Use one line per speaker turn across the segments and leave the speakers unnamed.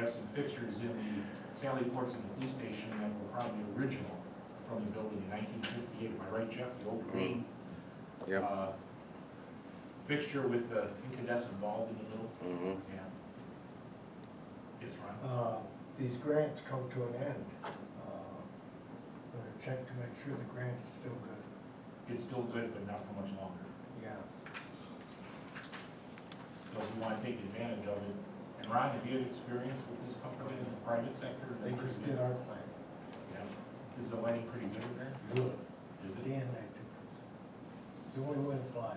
have some fixtures in the Sally Ports and the police station that were probably original from the building in nineteen fifty-eight, am I right, Jeff? The old green.
Yep.
uh, Fixture with the incandescent bulb in the middle,
Mm-hmm.
yeah. Yes, Ron?
Uh, These grants come to an end. Uh, Better check to make sure the grant is still good.
It's still good, but not for much longer.
Yeah.
So we want to take advantage of it. And Ron, have you had experience with this company in the private sector?
They just did our plan.
Yeah. Is the lighting pretty good there?
Good.
Is it?
Dan, they took us. The only way to fly.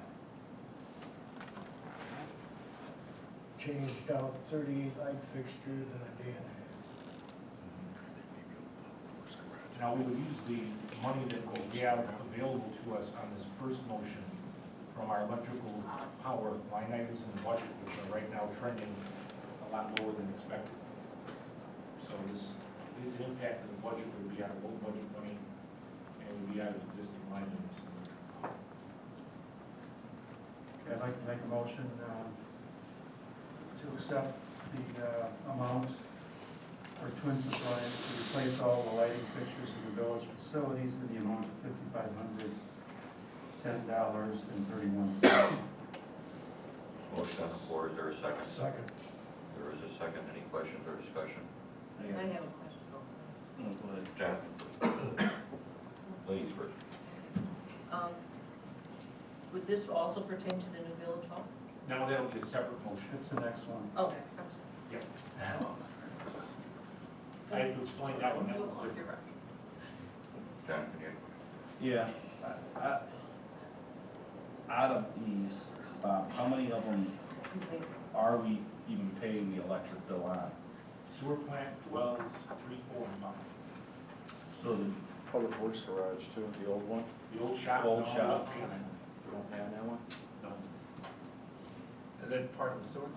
Changed out thirty-eight light fixtures in a day and a half.
Now, we would use the money that we have available to us on this first motion from our electrical power line items in the budget, which are right now trending a lot lower than expected. So this, this impact of the budget would be out of old budget money and would be out of existing line items.
Okay, I'd like to make a motion um, to accept the uh, amount for Twin Supply to replace all the lighting fixtures in the village facilities in the amount of fifty-five hundred, ten dollars and thirty-one cents.
Motion on the floor, is there a second?
Second,
There is a second, any questions or discussion?
I have a question.
Jonathan? Ladies first.
Um, Would this also pertain to the new village hall?
Now, that'll be a separate motion.
It's the next one.
Oh, I'm sorry.
I have to explain that one, that was different.
You're right.
Jonathan, you?
Yeah, I- I- out of these, Bob, how many of them are we even paying the electric bill on?
Sewer plant, wells, three, four, and five.
So the
Public Works Garage too, the old one?
The old shop.
Old
no,
shop.
okay,
You don't have that one?
no.
Is that part of the sewer?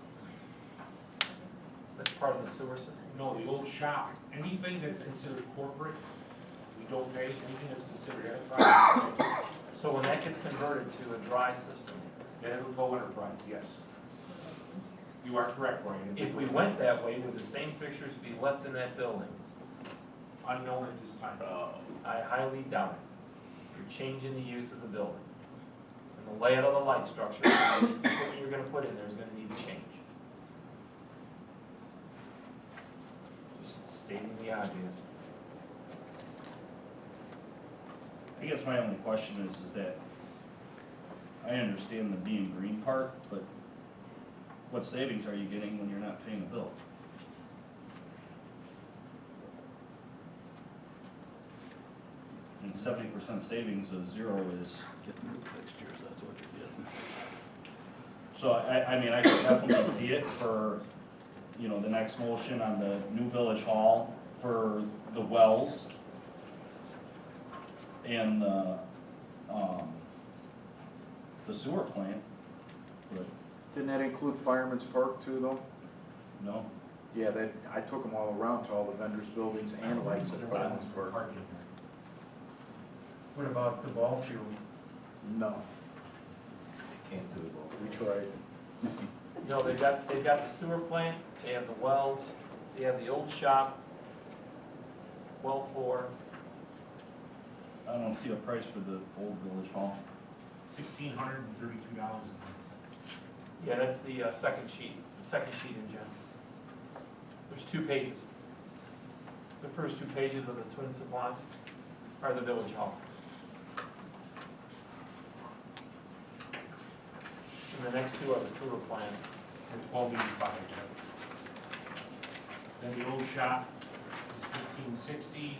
Is that part of the sewer system?
No, the old shop, anything that's considered corporate, we don't pay, anything that's considered enterprise, we pay.
So when that gets converted to a dry system,
then it'll go enterprise, yes. You are correct, Brian.
if we went that way, would the same fixtures be left in that building?
Unknown at this time.
I highly doubt it. You're changing the use of the building. And the layout of the light structure, what you're gonna put in there is gonna need to change. Just stating the obvious.
I guess my only question is, is that I understand the being green part, but what savings are you getting when you're not paying a bill? And seventy percent savings of zero is. Get the new fixtures, that's what you're getting. So I, I mean, I could definitely see it for, you know, the next motion on the new village hall for the wells and the, um, the sewer plant, but
Didn't that include Fireman's Park too though?
no.
Yeah, that, I took them all around to all the vendors' buildings and lights at Fireman's Park.
Parking.
What about the ball field?
No,
Can't do it all.
we tried.
No, they've got, they've got the sewer plant, they have the wells, they have the old shop, well floor.
I don't see a price for the old village hall.
Sixteen hundred and thirty-two dollars and nine cents.
Yeah, that's the uh, second sheet, the second sheet in Jen. There's two pages. The first two pages of the Twin Supplies are the village hall. And the next two are the sewer plant.
For twelve eighty-five. Then the old shop is fifteen sixty,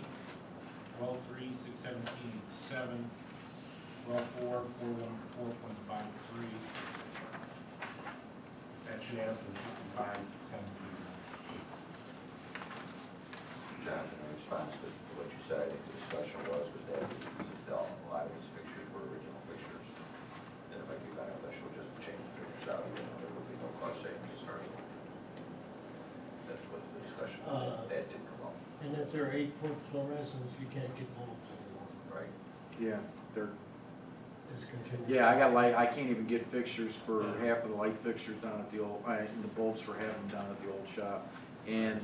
well three, six seventeen, seven, well four, four one, four point five three. That should add up to fifty-five, ten three.
Jonathan, in response to what you said, I think the discussion was, was that a lot of these fixtures were original fixtures. That it might be beneficial just to change the fixtures out, you know, there would be no cost savings starting. That was the discussion, that that did come up,
And if they're eight-foot fluorescents, you can't get bulbs anymore.
right?
Yeah, they're,
Discontinued.
yeah, I got light, I can't even get fixtures for uh, half of the light fixtures down at the old, I, and the bulbs for half of them down at the old shop. And